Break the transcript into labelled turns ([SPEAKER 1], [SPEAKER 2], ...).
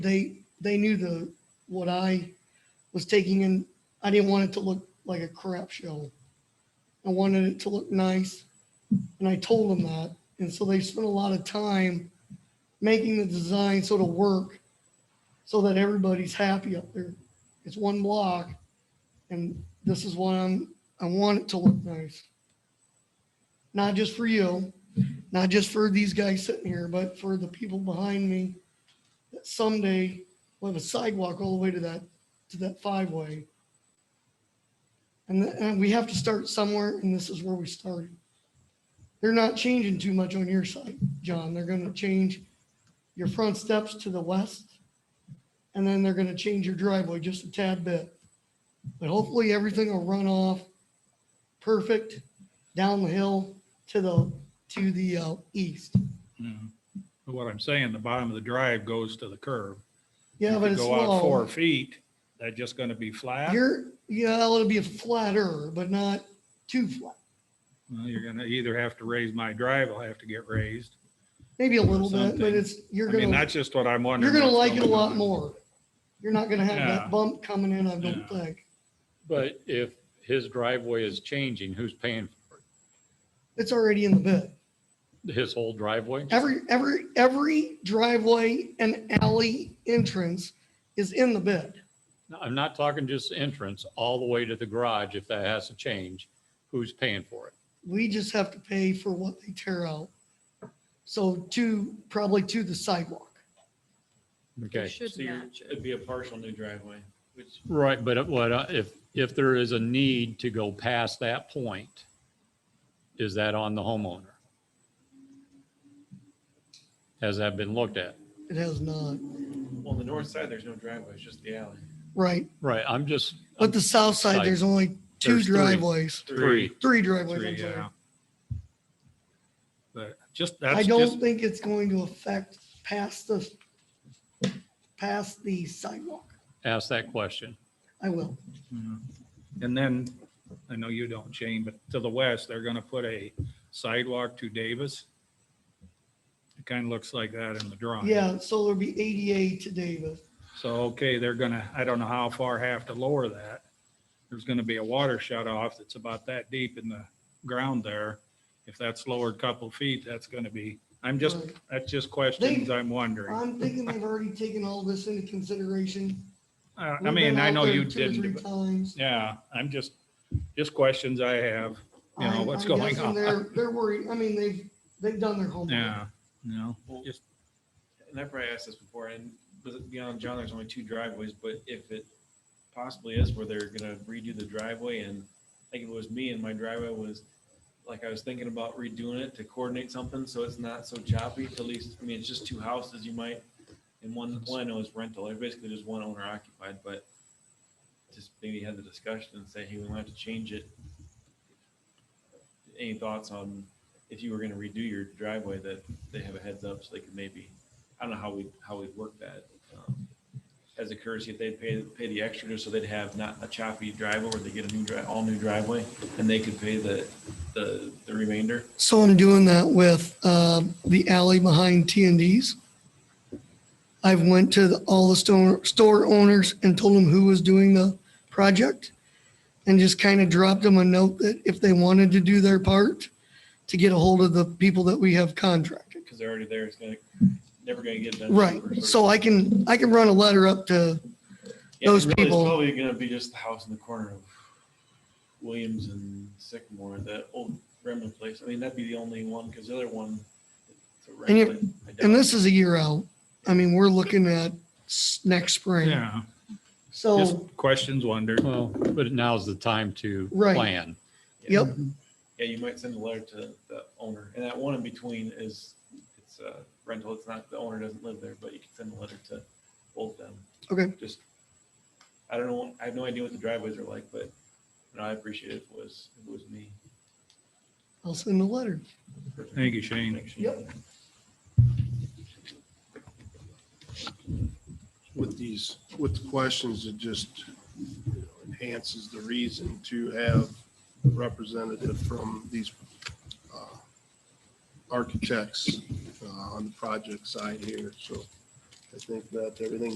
[SPEAKER 1] they, they knew the, what I was taking in, I didn't want it to look like a crap show. I wanted it to look nice, and I told them that. And so they spent a lot of time making the design sort of work so that everybody's happy up there. It's one block, and this is what I'm, I want it to look nice. Not just for you, not just for these guys sitting here, but for the people behind me. That someday we'll have a sidewalk all the way to that, to that five-way. And, th- and we have to start somewhere, and this is where we started. They're not changing too much on your side, John. They're gonna change your front steps to the west. And then they're gonna change your driveway just a tad bit. But hopefully, everything will run off perfect down the hill to the, to the uh, east.
[SPEAKER 2] Yeah. But Mm-hmm. What I'm saying, the bottom of the drive goes to the curb.
[SPEAKER 1] Yeah,
[SPEAKER 2] If
[SPEAKER 1] but
[SPEAKER 2] you
[SPEAKER 1] it's
[SPEAKER 2] Go out
[SPEAKER 1] slow.
[SPEAKER 2] four feet, that just gonna be flat.
[SPEAKER 1] You're, yeah, it'll be flatter, but not too flat.
[SPEAKER 2] Well, You're gonna either have to raise my drive, I'll have to get raised.
[SPEAKER 1] Maybe a little bit, but
[SPEAKER 2] Something.
[SPEAKER 1] it's, you're
[SPEAKER 2] I mean,
[SPEAKER 1] gonna,
[SPEAKER 2] that's just what I'm
[SPEAKER 1] you're
[SPEAKER 2] wondering.
[SPEAKER 1] gonna
[SPEAKER 2] what's
[SPEAKER 1] like it a
[SPEAKER 2] going
[SPEAKER 1] lot
[SPEAKER 2] on.
[SPEAKER 1] more. You're not gonna have
[SPEAKER 2] Yeah.
[SPEAKER 1] that bump coming in, I don't
[SPEAKER 2] Yeah.
[SPEAKER 1] think.
[SPEAKER 3] But if his driveway is changing, who's paying for
[SPEAKER 1] It's already in the bid.
[SPEAKER 3] it? His whole driveway?
[SPEAKER 1] Every, every, every driveway and alley entrance is in the bid.
[SPEAKER 3] No, I'm not talking just entrance, all the way to the garage, if that has to change, who's paying for it?
[SPEAKER 1] We just have to pay for what they tear out. So to, probably to the sidewalk.
[SPEAKER 3] Okay,
[SPEAKER 4] Should
[SPEAKER 5] So you're,
[SPEAKER 4] match
[SPEAKER 5] it'd
[SPEAKER 4] it.
[SPEAKER 5] be a partial new driveway, which,
[SPEAKER 3] right, but what, I- if, if there is a need to go past that point, is that on the homeowner? Has that been looked at?
[SPEAKER 1] It has not,
[SPEAKER 5] on the north side, there's no driveway, it's just the alley.
[SPEAKER 1] right?
[SPEAKER 3] Right, I'm just.
[SPEAKER 1] But the south side,
[SPEAKER 3] Side.
[SPEAKER 1] there's only two
[SPEAKER 3] There's three.
[SPEAKER 1] driveways,
[SPEAKER 3] Three,
[SPEAKER 1] three driveways.
[SPEAKER 2] Three,
[SPEAKER 1] I'm sorry.
[SPEAKER 2] yeah. But just,
[SPEAKER 1] I
[SPEAKER 2] that's just,
[SPEAKER 1] don't think it's going to affect past the, past the sidewalk.
[SPEAKER 3] ask that question.
[SPEAKER 1] I will.
[SPEAKER 2] Mhm. and then, I know you don't, Shane, but to the west, they're gonna put a sidewalk to Davis. It kind of looks like that in the drawing.
[SPEAKER 1] Yeah, so there'll be ADA to Davis.
[SPEAKER 2] So, okay, they're gonna, I don't know how far have to lower that. There's gonna be a water shut off that's about that deep in the ground there. If that's lowered a couple feet, that's gonna be, I'm just,
[SPEAKER 1] Right.
[SPEAKER 2] that's just questions I'm wondering.
[SPEAKER 1] I'm thinking they've already taken all this into consideration.
[SPEAKER 2] Uh, I
[SPEAKER 1] We've been
[SPEAKER 2] mean, I
[SPEAKER 1] out
[SPEAKER 2] know
[SPEAKER 1] there
[SPEAKER 2] you
[SPEAKER 1] two or three
[SPEAKER 2] didn't, but-
[SPEAKER 1] Times.
[SPEAKER 2] yeah, I'm just, just questions I have, you know,
[SPEAKER 1] I'm-
[SPEAKER 2] what's
[SPEAKER 1] I'm
[SPEAKER 2] going
[SPEAKER 1] guessing
[SPEAKER 2] on.
[SPEAKER 1] They're, they're worried. I mean, they've, they've done their homework.
[SPEAKER 2] Yeah, no,
[SPEAKER 5] Well,
[SPEAKER 2] Just-
[SPEAKER 5] And I probably asked this before, and with it beyond John, there's only two driveways, but if it possibly is where they're gonna redo the driveway and like if it was me and my driveway was, like I was thinking about redoing it to coordinate something, so it's not so choppy, at least, I mean, it's just two houses, you might, and one, one I know is rental, they're basically just one owner occupied, but just maybe have the discussion and say, hey, we might have to change it. Any thoughts on if you were gonna redo your driveway that they have a heads up so they could maybe I don't know how we, how we work that. um, As a courtesy, if they pay, pay the extra, just so they'd have not a choppy driveway where they get a new dri, all new driveway and they could pay the, the, the remainder.
[SPEAKER 1] So I'm doing that with um, the alley behind T and D's. I've went to the- all the store, store owners and told them who was doing the project and just kind of dropped them a note that if they wanted to do their part, to get a hold of the people that we have contracted.
[SPEAKER 5] Cause they're already there. It's gonna, never gonna get done.
[SPEAKER 1] Right. So I can, I can run a letter up to,
[SPEAKER 5] Yeah,
[SPEAKER 1] those
[SPEAKER 5] really,
[SPEAKER 1] people-
[SPEAKER 5] It's probably gonna be just the house in the corner of Williams and Sycamore, the old Remlin place. I mean, that'd be the only one, cause the other one. it's a
[SPEAKER 1] And you-
[SPEAKER 5] rental. I doubt
[SPEAKER 1] and this is a year out. I mean, we're looking at s- next spring.
[SPEAKER 2] yeah, just
[SPEAKER 1] So,
[SPEAKER 2] questions wondered.
[SPEAKER 3] Well, but now's the time to
[SPEAKER 1] Right.
[SPEAKER 3] plan.
[SPEAKER 5] it.
[SPEAKER 1] yep,
[SPEAKER 5] Yeah, you might send a letter to the owner, and that one in between is, it's a rental, it's not, the owner doesn't live there, but you can send a letter to both them.
[SPEAKER 1] Okay.
[SPEAKER 5] Just, I don't know, I have no idea what the driveways are like, but, you know, I appreciate it if it was, if it was me.
[SPEAKER 1] I'll send a letter.
[SPEAKER 2] Thank you, Shane.
[SPEAKER 5] Thanks, Shane.
[SPEAKER 1] Yep.
[SPEAKER 6] with these, with the questions, it just you know, enhances the reason to have a representative from these uh, architects uh, on the project side here. So I think that everything